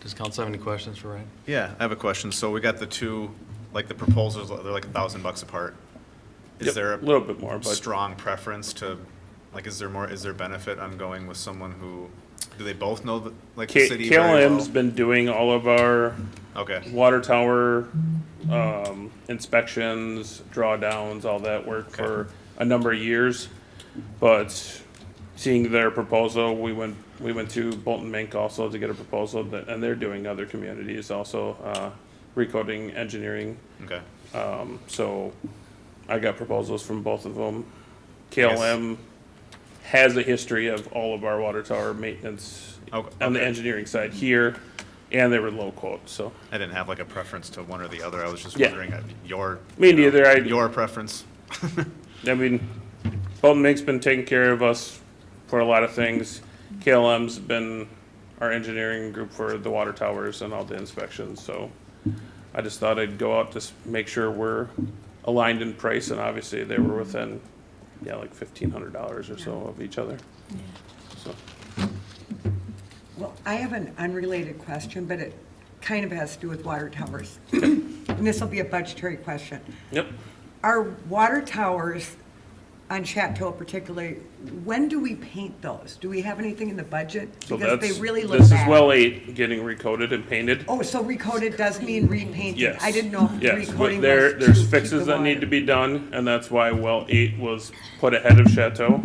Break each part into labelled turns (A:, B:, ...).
A: Does council have any questions for Ryan?
B: Yeah, I have a question. So we got the two, like the proposals, they're like a thousand bucks apart. Is
C: Yep,
B: there
C: A little
B: a
C: bit more, but
B: strong preference to, like, is there more, is there benefit on going with someone who, do they both know, the like, the
C: K-
B: city very
C: KLM's
B: well?
C: been doing all of our
B: Okay,
C: water tower um, inspections, drawdowns, all that work for a number of years. But seeing their proposal, we went, we went to Bolton Mink also to get a proposal, that- and they're doing other communities also, uh, recoding engineering.
B: okay.
C: Um, So I got proposals from both of them. KLM has a history of all of our water tower maintenance
B: O-
C: on the
B: Oh, okay.
C: engineering side here, and they were low quote, so.
B: I didn't have like a preference to one or the other. I was just
C: Yeah.
B: wondering uh, your.
C: Me
B: you know,
C: neither. I-
B: Your preference.
C: I mean, Bolton Mink's been taking care of us for a lot of things. KLM's been our engineering group for the water towers and all the inspections, so I just thought I'd go out to s- make sure we're aligned in price, and obviously they were within, yeah, like fifteen hundred dollars or so of each other. So,
D: Well, I have an unrelated question, but it kind of has to do with water towers. And this will be a budgetary question.
C: yep.
D: Our water towers on Chateau particularly, when do we paint those? Do we have anything in the budget?
C: So
D: Because they
C: that's-
D: really look
C: This is
D: bad.
C: well eight, getting recoded and painted.
D: Oh, so recoded does mean repainting?
C: Yes.
D: I didn't know if
C: Yes,
D: recoding
C: but there,
D: was to
C: there's
D: keep the
C: fixes that need to
D: water.
C: be done, and that's why well eight was put ahead of Chateau.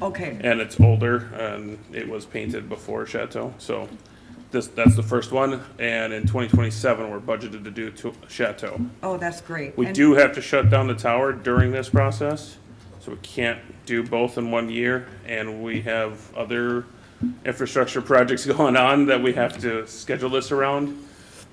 D: Okay,
C: and it's older and it was painted before Chateau. So this, that's the first one. And in twenty twenty-seven, we're budgeted to do to Chateau.
D: oh, that's great.
C: We
D: And-
C: do have to shut down the tower during this process, so we can't do both in one year. And we have other infrastructure projects going on that we have to schedule this around.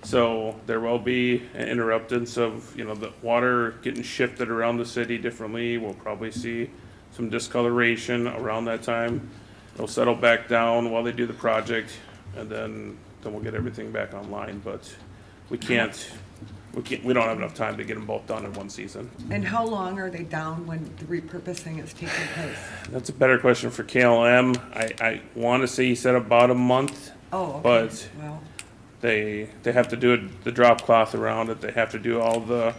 C: So there will be an interruptance of, you know, the water getting shifted around the city differently. We'll probably see some discoloration around that time. It'll settle back down while they do the project, and then, then we'll get everything back online. But we can't, we can't, we don't have enough time to get them both done in one season.
D: And how long are they down when the repurposing is taking place?
C: That's a better question for KLM. I, I want to say he said about a month.
D: Oh, okay,
C: But
D: well,
C: they they have to do it, the drop cloth around it. They have to do all the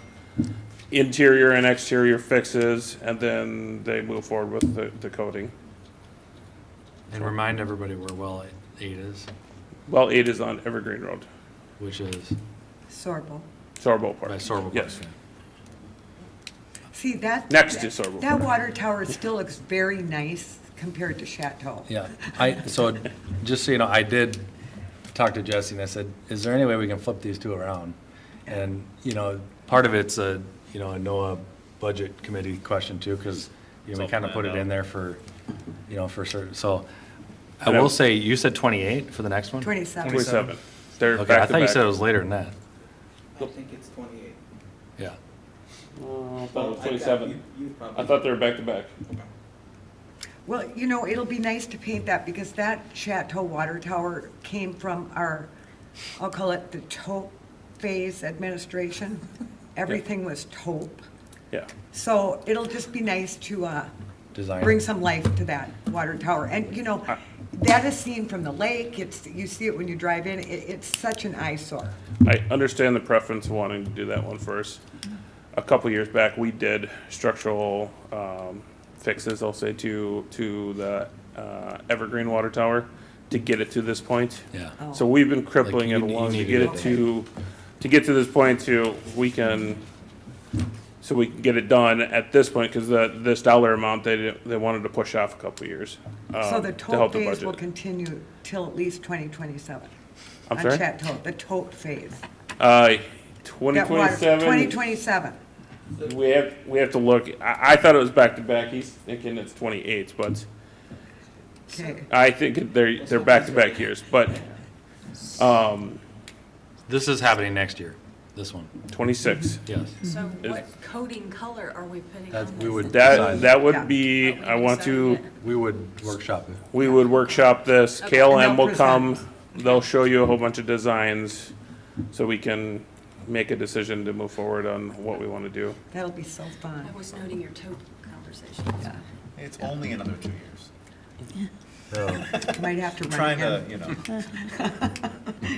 C: interior and exterior fixes, and then they move forward with the, the coating.
A: And remind everybody where well eight is,
C: Well, eight is on Evergreen Road,
A: which is
D: Sorbo.
C: Sorbo Park.
A: by Sorbo Park.
C: Yes.
D: See, that.
C: Next to Sorbo
D: That
C: Park.
D: water tower still looks very nice compared to Chateau.
A: Yeah, I, so, just so you know, I did talk to Jesse and I said, is there any way we can flip these two around? And, you know, part of it's a, you know, a NOAA budget committee question too, because, you know, we
B: It's all
A: kind of put it
B: planned
A: in there for, you know, for certain, so. I
C: And I-
A: will say, you said twenty-eight for the next one?
D: Twenty-seven.
C: Twenty-seven. They're
A: Okay, I
C: back
A: thought you
C: to
A: said it
C: back.
A: was later than that,
E: I think it's twenty-eight.
A: yeah.
C: Oh, I thought
E: Well,
C: it
E: I've
C: was
E: got-
C: twenty-seven.
E: you- you probably-
C: I thought they were back to back.
D: Well, you know, it'll be nice to paint that because that Chateau water tower came from our, I'll call it the taupe phase administration. Everything was taupe.
C: Yeah.
D: So it'll just be nice to, uh,
A: Design.
D: bring some life to that water tower. And, you know, that is seen from the lake. It's, you see it when you drive in. It, it's such an eyesore.
C: I understand the preference of wanting to do that one first. A couple years back, we did structural um, fixes, I'll say, to, to the uh, Evergreen Water Tower to get it to this point.
A: Yeah.
D: Oh.
C: So we've been crippling
A: Like,
C: it
A: you- you
C: along
A: need
C: to
A: to
C: get
A: get
C: it to, to get to this point to, we can, so we can get it done at this point, because the, this dollar amount, they, didn't- they wanted to push off a couple years.
D: So
C: um,
D: the
C: to help
D: tote
C: the
D: phase will
C: budget.
D: continue till at least 2027.
C: I'm
D: on
C: sorry?
D: Chateau, the tote phase.
C: Uh,
D: That water-
C: 2027.
D: 2027.
C: We have, we have to look, I, I thought it was back to back, he's thinking it's twenty-eight, but
D: Okay,
C: I think they're, they're back to back years, but, um,
A: This is happening next year, this one,
C: twenty-six.
A: yes.
F: So
C: Mm-hmm. Is-
F: what coating color are we putting
A: That
F: on
A: we would-
F: this?
C: That, that would be, I want to,
A: We would workshop it.
C: we would workshop this, KLM will come,
D: present.
C: they'll show you a whole bunch of designs, so we can make a decision to move forward on what we wanna do.
D: that'll be so
F: I
D: fun.
F: was noting your taupe conversation.
D: Yeah.
B: It's only another two years.
D: Might have to run
B: Trying
D: again.
B: to, you know.